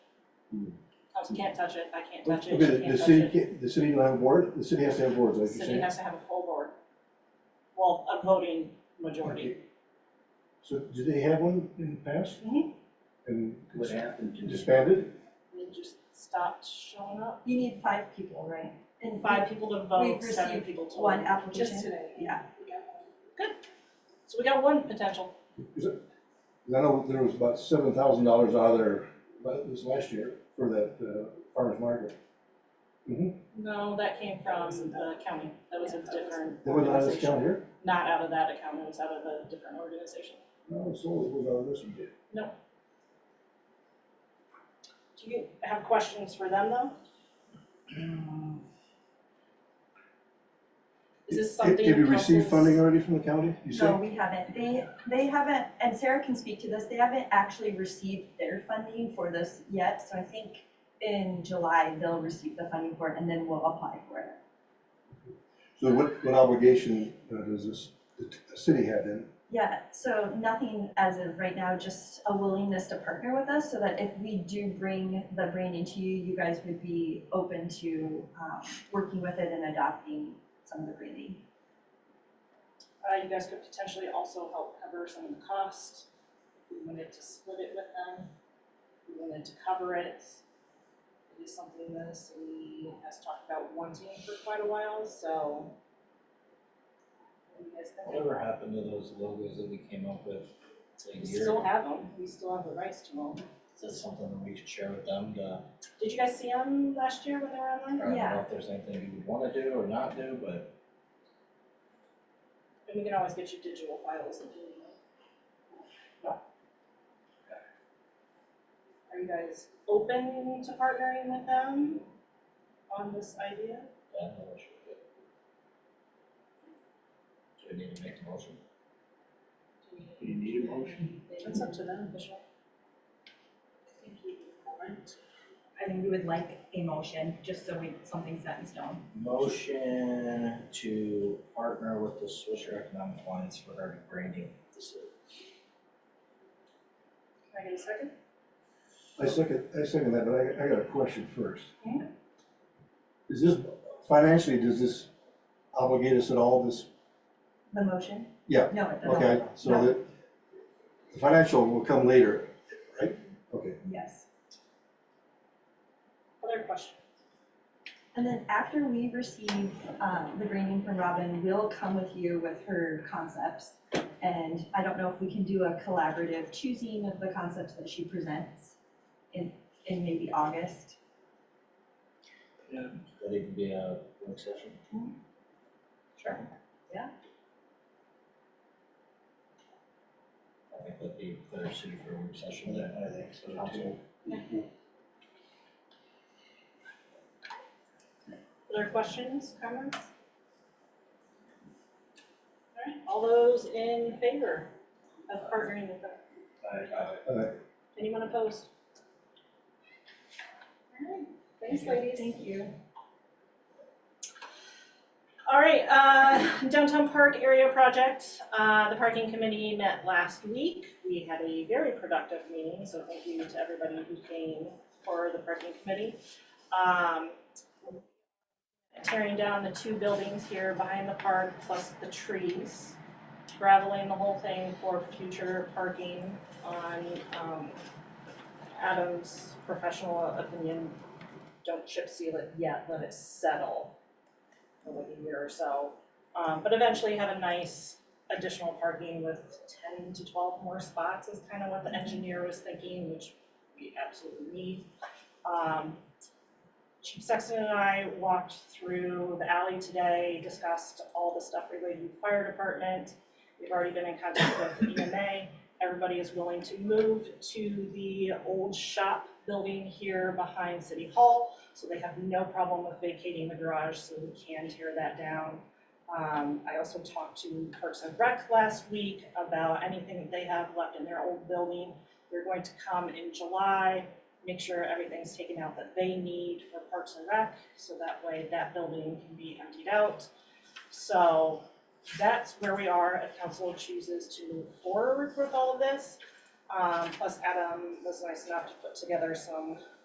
I can't touch it, I can't touch Okay, it, she the, can't the touch city it. can't, the city don't have board, the city has to have boards, like you're City saying. has to have a full board. Well, a voting majority. Okay. So did they have one in the past? Mhm. And What happened to this? disbanded? They just stopped showing up. You need five people, right? And five people to vote, We've seven received people to One Just application. today. Yeah. So we got one potential. Cause I know there was about seven thousand dollars out of there, but this last year for that, uh, farmer's market. No, that came from the county. That was a different That was out of this organization. county here? Not out of that account, it was out of a different organization. No, it's only, it was out of this one. Do you have questions for them though? Is this Have- something? Have you received council's- funding already from the county, you No, say? we haven't. They, they haven't, and Sarah can speak to this, they haven't actually received their funding for this yet. So I think in July, they'll receive the funding for it and then we'll apply for it. So what, what obligation uh, does this, the t- the city have then? Yeah, so nothing as of right now, just a willingness to partner with us so that if we do bring the brand into you, you guys would be open to um working with it and adopting some of the branding. Uh, you guys could potentially also help cover some of the cost. If we wanted to split it with them, if we wanted to cover it. It is something the city has talked about wanting for quite a while, so. What do you guys think? Whatever happened to those logos that we came up with a We year ago? still have them, we still have the rights to them. Is that something that we could share with them to, Did you guys see them last year when they were I online? don't Yeah. know if there's anything you would wanna do or not do, but And we can always get you digital files if you need them. Are you guys open to partnering with them on this idea? I don't know what should do. Do we need to make a motion? Do you need a motion? It's up to them, Michelle. I think we would like a motion, just so we, something's set in stone. Motion to partner with the Swisher Economic Alliance regarding branding of the city. Can I get a second? I second, I second that, but I, I got a question first. Yeah. Is this, financially, does this obligate us at all, this, The motion? Yeah, No, it doesn't. okay, so that, the financial will come later, right? Okay, Yes. Other question? And then after we receive um the branding from Robin, we'll come with you with her concepts. And I don't know if we can do a collaborative choosing of the concepts that she presents in in maybe August. That even be a work session? Sure. Yeah. I think that'd be better suited for a work session than I think so too. Other questions, comments? Alright, all those in favor of partnering with them? Anyone opposed? Alright, thanks ladies. Thank you. Alright, uh, downtown park area project, uh, the parking committee met last week. We had a very productive meeting, so thank you to everybody who came for the parking committee. Um, tearing down the two buildings here behind the park plus the trees, graveling the whole thing for future parking on, um, Adam's professional opinion, don't chip seal it yet, let it settle for like a year or so. Um, but eventually have a nice additional parking with ten to twelve more spots is kind of what the engineer was thinking, which we absolutely need. Um, Chief Sexton and I walked through the alley today, discussed all the stuff related to the fire department. We've already been in contact with EMA. Everybody is willing to move to the old shop building here behind City Hall. So they have no problem with vacating the garage, so we can tear that down. Um, I also talked to Parks and Rec last week about anything that they have left in their old building. They're going to come in July, make sure everything's taken out that they need for Parks and Rec, so that way that building can be emptied out. So that's where we are if council chooses to move forward with all of this. Um, plus Adam was nice enough to put together some